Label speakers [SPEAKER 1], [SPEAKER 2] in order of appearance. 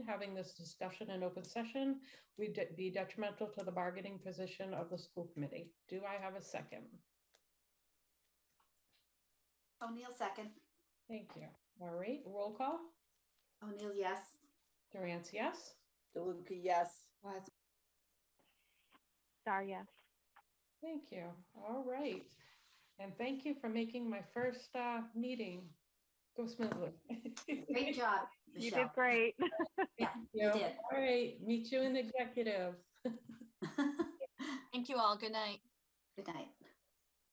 [SPEAKER 1] having this discussion in open session would de- be detrimental to the bargaining position of the school committee. Do I have a second?
[SPEAKER 2] O'Neill second.
[SPEAKER 1] Thank you. All right, roll call.
[SPEAKER 2] O'Neill, yes.
[SPEAKER 1] Durant, yes?
[SPEAKER 3] DeLuca, yes.
[SPEAKER 4] Star, yes.
[SPEAKER 1] Thank you. All right. And thank you for making my first uh, meeting go smoothly.
[SPEAKER 2] Great job,
[SPEAKER 4] You did
[SPEAKER 2] Michelle.
[SPEAKER 4] great.
[SPEAKER 1] You
[SPEAKER 2] did.
[SPEAKER 1] All right, meet you in executive.
[SPEAKER 2] Good
[SPEAKER 5] Thank you all. Good night.
[SPEAKER 2] night.